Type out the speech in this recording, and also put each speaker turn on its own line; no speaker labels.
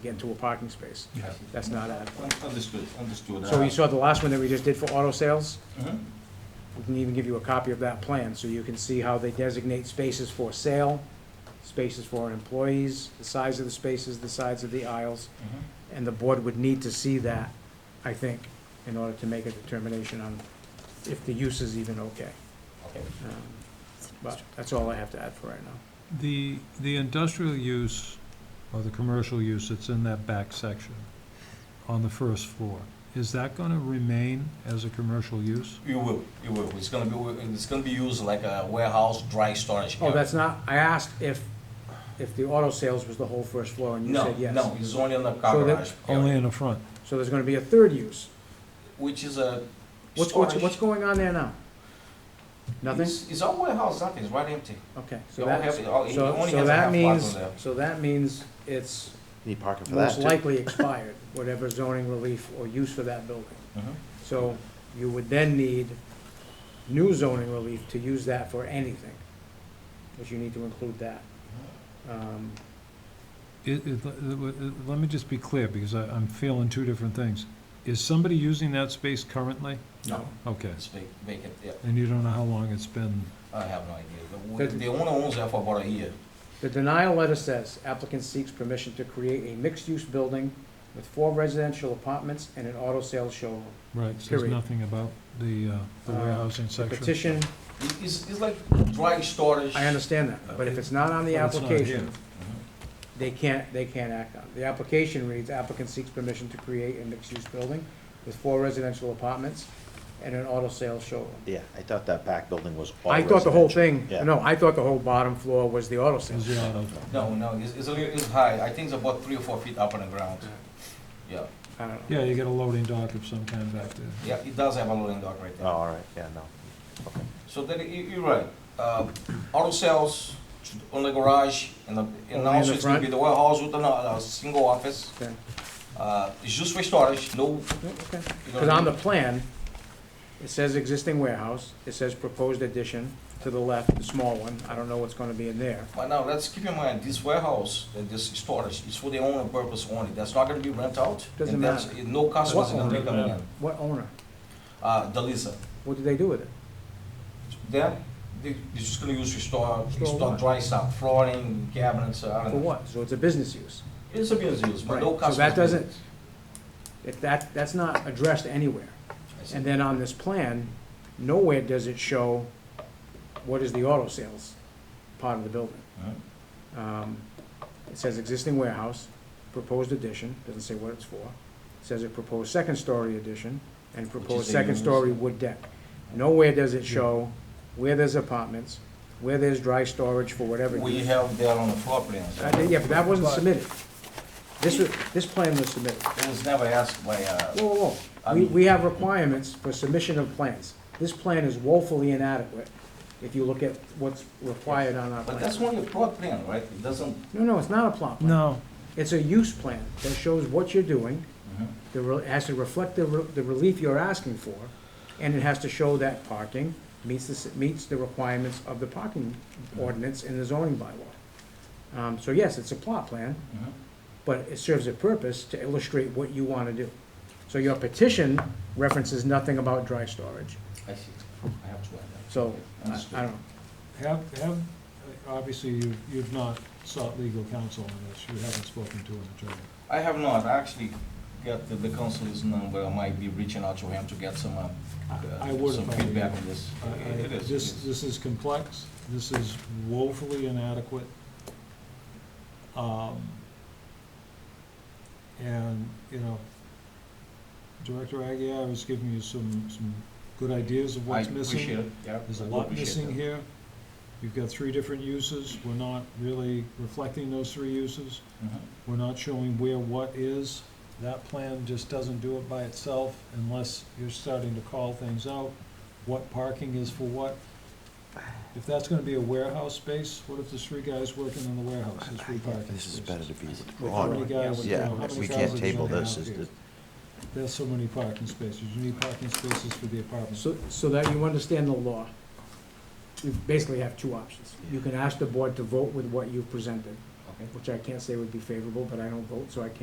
get into a parking space.
Yeah.
That's not a,
Un- Understood, understood.
so
Uh,
you saw the last one that we just did for auto sales?
Uh-huh.
mhm.
Mm-hmm.
We can even give you a copy of that plan, so you can see how they designate spaces for sale, spaces for employees, the size of the spaces, the sides of the aisles,
Mm-hmm.
and the board would need to see that, I think, in order to make a determination on if the use is even okay. Um, But that's all I have to add for right now.
The, the industrial use, or the commercial use that's in that back section on the first floor, is that gonna remain as a commercial use?
You will, you will. It's gonna be, it's gonna be used like a warehouse, dry storage.
Oh,
area.
that's not, I asked if, if the auto sales was the whole first floor, and you
No,
said yes.
no, it's only on the
So
car
that-
garage,
Only
area,
in the front?
So there's gonna be a third use.
which is a
What's, what's,
storage.
what's going on there now? Nothing?
It's, it's all warehouse, nothing, it's right empty.
Okay, so
You only
that,
have, oh, you
so,
only
so
have a half
that
block
means,
on there.
so that means it's
Need parking for that,
most
too.
likely expired, whatever zoning relief or use for that building.
Mm-hmm.
Mhm.
So you would then need new zoning relief to use that for anything, because you need to include that.
Mm-hmm.
Um,
It, it, let- let me just be clear, because I, I'm feeling two different things. Is somebody using that space currently?
No,
Okay,
it's vac- vacant, yeah.
and you don't know how long it's been,
I have no idea. The wo-
Good.
The owner owns there for about a year.
The denial letter says applicant seeks permission to create a mixed-use building with four residential apartments and an auto sales showroom.
right, says
Period.
nothing about the, uh, the
Uh,
warehousing
The
section?
petition,
It- It's, it's like dry storage. Mm-hmm.
I understand that, but if it's not on the
But it's not
application,
here.
they can't, they can't act on. it. The application reads, applicant seeks permission to create a mixed-use building with four residential apartments and an auto sales showroom.
Yeah, I thought that back building was all
I thought the whole
residential.
thing,
Yeah.
no, I thought the whole bottom floor was the auto
Is
sales.
the auto,
No, no, it's, it's a little, it's high. I think it's about three or four feet up on the ground. Yeah,
I don't know.
yeah, you get a loading dock of some kind back there.
yeah, it does have a loading dock right
Oh,
there.
all right, yeah, no.
So then, you, you're right. Uh, auto sales should- on the garage, and the,
in
and
the
also it's gonna be
front?
the warehouse with an, uh, a single office.
Okay.
Uh, it's just for storage, no.
No, okay.
you know
Because
what I
on the
mean?
plan, it says existing warehouse, it says proposed addition to the left, the small one, I don't know what's gonna be in there.
But now, let's keep in mind, this warehouse, uh, this storage, is for their own purpose only. That's not gonna be rent out.
Doesn't
and that's- No customers are gonna be
Doesn't
coming
matter.
in.
What owner?
Uh, Delisa.
What did they do with it?
Then, they, they're just gonna use to store,
Store
store
what?
dry stuff, flooring, cabinets, uh, I
For
don't know.
what? So it's a business use.
It's a business use, but
Right.
no customers.
So that doesn't, if that, that's not addressed anywhere.
I see.
And then on this plan, nowhere does it show what is the auto sales part of the building.
Mhm.
Um, It says existing warehouse, proposed addition, doesn't say what it's for. It Says a proposed second-story addition and proposed
the
second-story wood deck. Nowhere does it show where there's apartments, where there's dry storage for whatever.
We
use.
have that on the floor plans.
I think- Yeah, but that wasn't
But
submitted. This was, this plan was submitted.
It was never asked by, uh,
Whoa, whoa, whoa.
I
We,
mean-
we have requirements for submission of plans. This plan is woefully inadequate if you look at what's required on our
but that's
plan.
only a floor plan, right? It doesn't,
No, no, it's not a plot plan.
No,
It's a use plan that shows what you're doing,
Mm-hmm.
the, re- has to reflect the, re- the relief you're asking for, and it has to show that parking meets the, s- meets the requirements of the parking ordinance in the zoning bylaw. Um, so yes, it's a plot plan,
Mhm.
but it serves a purpose to illustrate what you want to do. So your petition references nothing about dry storage,
I see, I have to add that.
so, I I
Understood.
don't know.
Have, have, obviously, you've, you've not sought legal counsel on this, you haven't spoken to an attorney.
I have not, I actually got the, the council's number, I might be reaching out to him to get some, uh,
I- I
uh,
would
some
if I were
feedback
you.
on this.
I- I-
It is, it
This,
is.
this is complex, this is woefully inadequate. Um, And, you know, Director Aguirre was giving you some, some good ideas of
I
what's missing.
appreciate it, yeah.
There's a
I do
lot
appreciate
missing
that.
here. You've got three different uses, we're not really reflecting those three uses.
Mhm.
We're not showing where what is. That plan just doesn't do it by itself unless you're starting to call things out, what parking is for what. If that's gonna be a warehouse space, what if there's three guys working in the warehouse, there's three parking
This is
spaces?
better to be
How many
withdrawn.
guys, you know,
Yeah,
how many
we
cars
can't
are
table
gonna
this,
have
is
here?
the,
There's so many parking spaces, you need parking spaces for the apartments.
So, so that you understand the law, you basically have two options. You can ask the board to vote with what you presented,
Okay.
which I can't say would be favorable, but I don't vote, so I can't